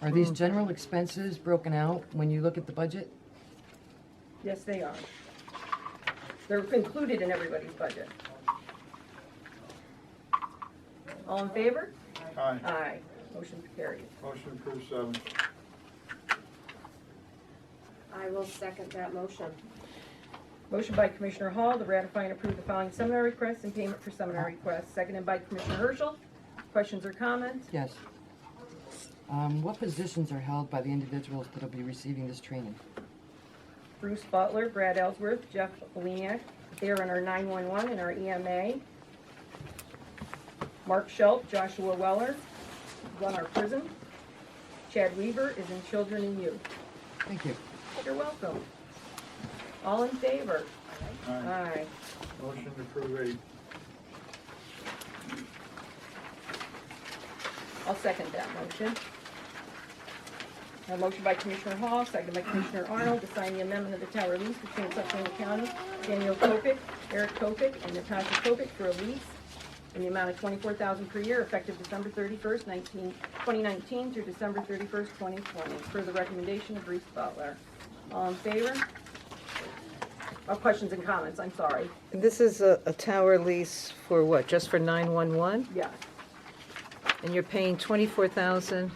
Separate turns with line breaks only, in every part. Are these general expenses broken out when you look at the budget?
Yes, they are. They're included in everybody's budget. All in favor?
Aye.
Aye. Motion carried.
Motion approved seven.
I will second that motion.
Motion by Commissioner Hall to ratify and approve the following seminar requests and payment for seminar requests, seconded by Commissioner Herschel. Questions or comments?
Yes. Um, what positions are held by the individuals that'll be receiving this training?
Bruce Butler, Brad Ellsworth, Jeff Leniak, they are in our 911 and our EMA. Mark Schultz, Joshua Weller, run our prison. Chad Weaver is in children and youth.
Thank you.
You're welcome. All in favor?
Aye.
Aye.
Motion approved eight.
I'll second that motion. A motion by Commissioner Hall, seconded by Commissioner Arnold, to sign the amendment of the tower lease between Susquehanna County, Daniel Kopic, Eric Kopic, and Natasha Kopic for a lease in the amount of twenty-four thousand per year effective December thirty-first, nineteen, twenty nineteen through December thirty-first, twenty twenty, per the recommendation of Bruce Butler. All in favor? Oh, questions and comments, I'm sorry.
This is a, a tower lease for what, just for 911?
Yeah,
And you're paying 24,000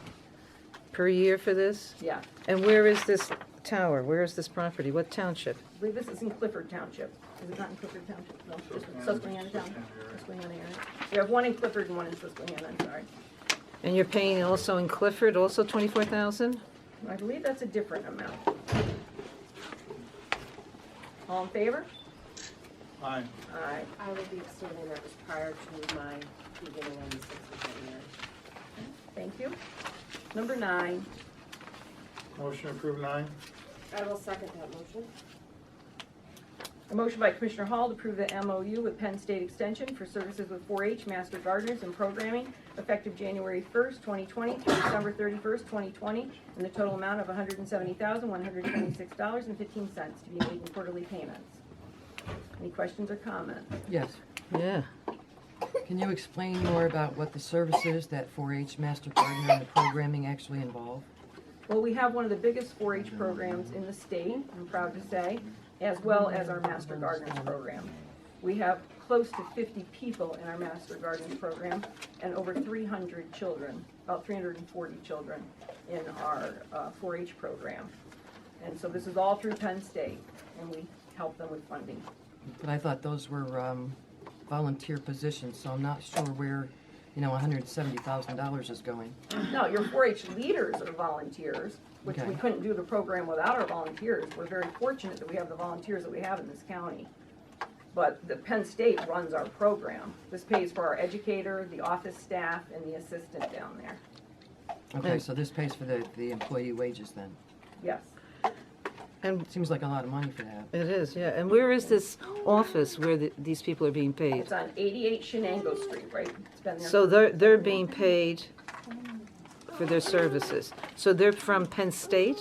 per year for this?
yeah.
And where is this tower? Where is this property? What township?
I believe this is in Clifford Township. Is it not in Clifford Township? No, just in Susquehanna Township. Susquehanna area. We have one in Clifford and one in Susquehanna, I'm sorry.
And you're paying also in Clifford, also 24,000?
I believe that's a different amount. All in favor?
Aye.
Aye.
I will be abstaining, that was prior to my beginning on the sixth of January.
Thank you. Number nine,
Motion approved nine.
I will second that motion.
a motion by Commissioner Hall to approve the MOU with Penn State Extension for services with 4-H Master Gardeners and Programming effective January 1st, 2020 through December 31st, 2020, in the total amount of $170,126.15 to be made in quarterly payments. Any questions or comments?
Yes.
Yeah.
Can you explain more about what the services that 4-H Master Gardener and the programming actually involve?
Well, we have one of the biggest 4-H programs in the state, I'm proud to say, as well as our Master Gardeners program. We have close to 50 people in our Master Gardeners program and over 300 children, about 340 children in our uh, 4-H program. And so this is all through Penn State, and we help them with funding.
But I thought those were, um, volunteer positions, so I'm not sure where, you know, hundred and seventy thousand dollars is going.
No, your 4-H leaders are volunteers, which we
Okay.
couldn't do the program without our volunteers. We're very fortunate that we have the volunteers that we have in this county. But the Penn State runs our program. This pays for our educator, the office staff, and the assistant down there.
Okay,
And-
so this pays for the, the employee wages then.
Yes.
And
Seems like a lot of money for that.
it is, yeah. And where is this office where the, these people are being paid?
It's on 88 Shenango Street, right? It's been there.
So they're, they're being paid for their services. So they're from Penn State?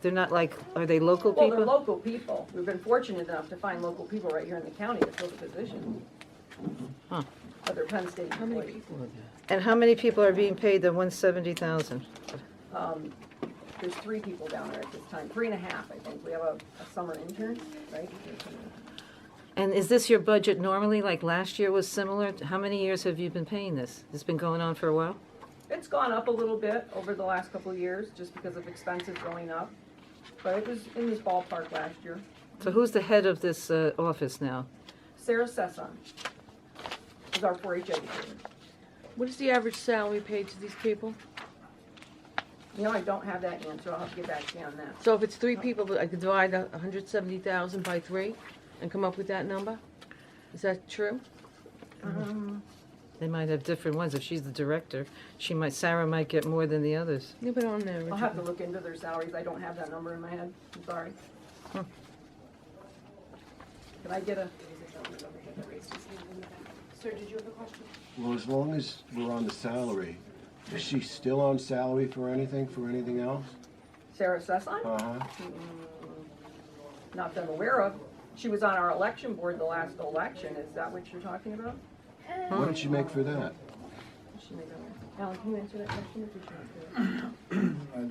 They're not like, are they local people?
Well, they're local people. We've been fortunate enough to find local people right here in the county to fill the position.
Huh.
But they're Penn State employees.
And how many people are being paid the 170,000?
Um, there's three people down there at this time, three and a half, I think. We have a, a summer intern, right?
And is this your budget normally, like last year was similar? How many years have you been paying this? It's been going on for a while?
It's gone up a little bit over the last couple of years, just because of expenses going up. But it was in this ballpark last year.
So who's the head of this uh, office now?
Sarah Sessom is our 4-H educator.
What is the average salary paid to these people?
You know, I don't have that answer. I'll have to get back to you on that.
So if it's three people, I could divide a hundred seventy thousand by three and come up with that number? Is that true?
Um,
They might have different ones. If she's the director, she might, Sarah might get more than the others.
Yeah, but on there.
I'll have to look into their salaries. I don't have that number in my head. I'm sorry. Can I get a,
Sir, did you have a question?
Well, as long as we're on the salary, is she still on salary for anything, for anything else?
Sarah Sessom?
Uh-huh.
not that I'm aware of. She was on our election board the last election, is that what you're talking about?
What did she make for that?
Is she making- Alan, can you answer that question if you should?